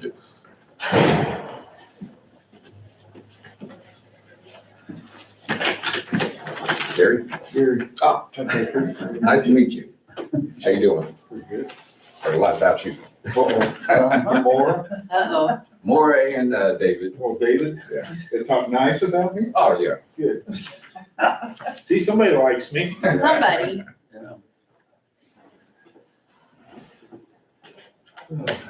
Yes. Gary, Gary. Ah. nice to meet you. How you doing? Pretty good. Heard a lot about you. Uh-oh. More, Uh-oh. More and uh, David. more David. Yeah. They talk nice about me. Oh, yeah. Good. See, somebody likes me. Somebody.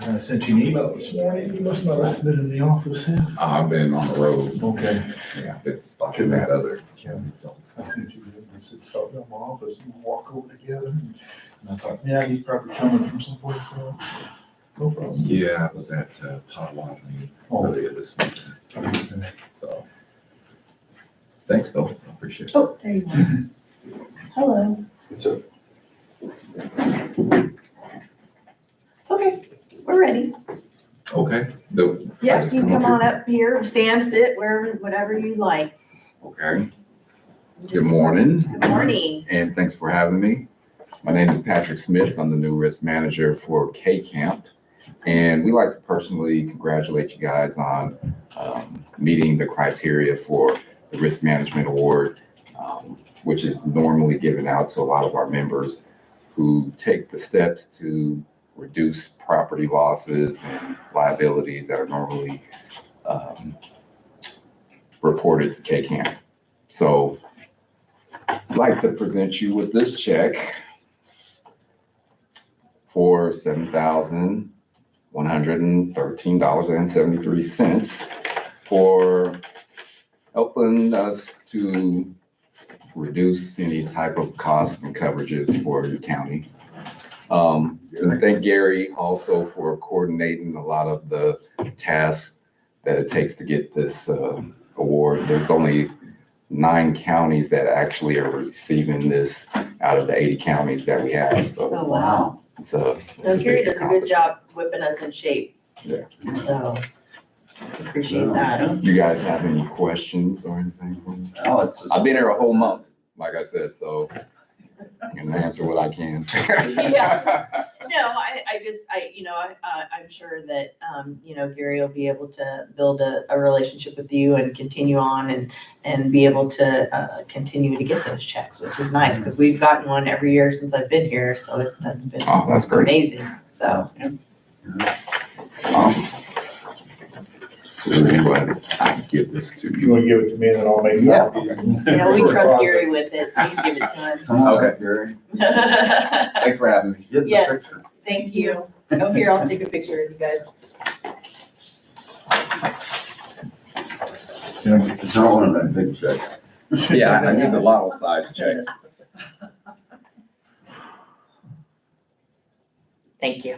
I sent you an email this morning. You must not have been in the office, huh? Uh, I've been on the road. Okay. Yeah, it's like that other. county, so. I sent you, that. I said, stop down my office and we'll walk over together. And I thought, yeah, he's probably coming from someplace else. No problem. Yeah, I was at uh, Potawatomi Oh, earlier this week, okay. so. Thanks, though. I Appreciate it. Oh, there you are. Hello. So, Okay, we're ready. okay. the- I Yeah, just you come up on up here, stand, sit, wherever, whatever you like. here? Okay. Good morning. Good morning. and thanks for having me. My name is Patrick Smith. I'm the new risk manager for K Camp. And we like to personally congratulate you guys on um, meeting the criteria for the Risk Management Award, um, which is normally given out to a lot of our members who take the steps to reduce property losses and liabilities that are normally um, reported to K Camp. So I'd like to present you with this check for seven thousand one hundred and thirteen dollars and seventy-three cents for helping us to reduce any type of cost and coverages for the county. Um, and I thank Gary also for coordinating a lot of the tasks that it takes to get this, uh, award. There's only nine counties that actually are receiving this out of the eighty counties that we have, so Oh, wow. it's a. it's a So Gary big does a good job whipping us in shape. Yeah. So appreciate that. You guys have any questions or anything? for me? Oh, it's. I've been here a whole month, like I said, so I can answer what I can. Yeah. No, I, I just, I, you know, I, I- I'm sure that, um, you know, Gary will be able to build a, a relationship with you and continue on and, and be able to, uh, continue to get those checks, which is nice, because we've gotten one every year since I've been here, so it- that's been Oh, that's great. amazing, so. Awesome. So we're glad I give this to You you. want to give it to me and then I'll make Yeah. copies? You know, we trust Gary with this, so you can give it Okay. Gary, to him. Thanks for having me. get the Yes. picture. Thank you. Oh, here, I'll take a picture of you guys. It's not one of them big checks. Yeah, I need the lotto size checks. Thank you.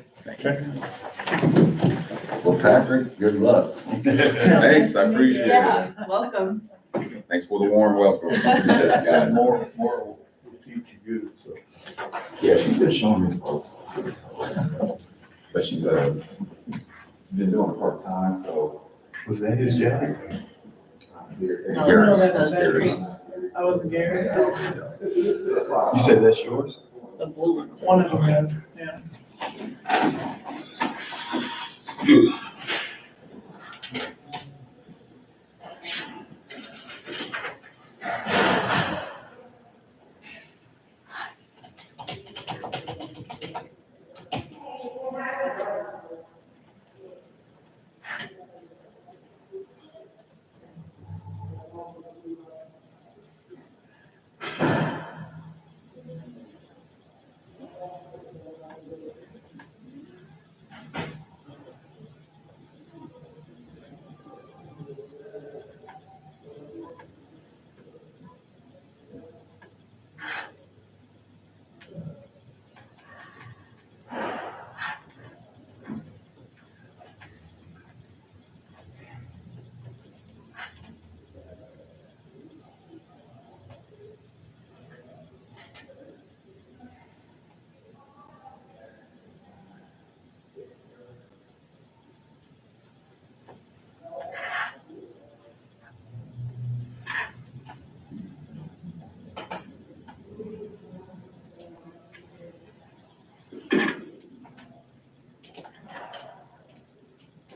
Well, Patrick, good luck. Thanks, I appreciate it. Yeah, welcome. Thanks for the warm welcome. Appreciate it, guys. More, more will teach you good, so. Yeah, she's been showing me folks. But she's, uh, she's been doing it part-time, so. Was that his jacket? Oh, Gary's- that was Gary's. I wasn't Gary. You You said that's yours? The blue one. One of them is, yeah.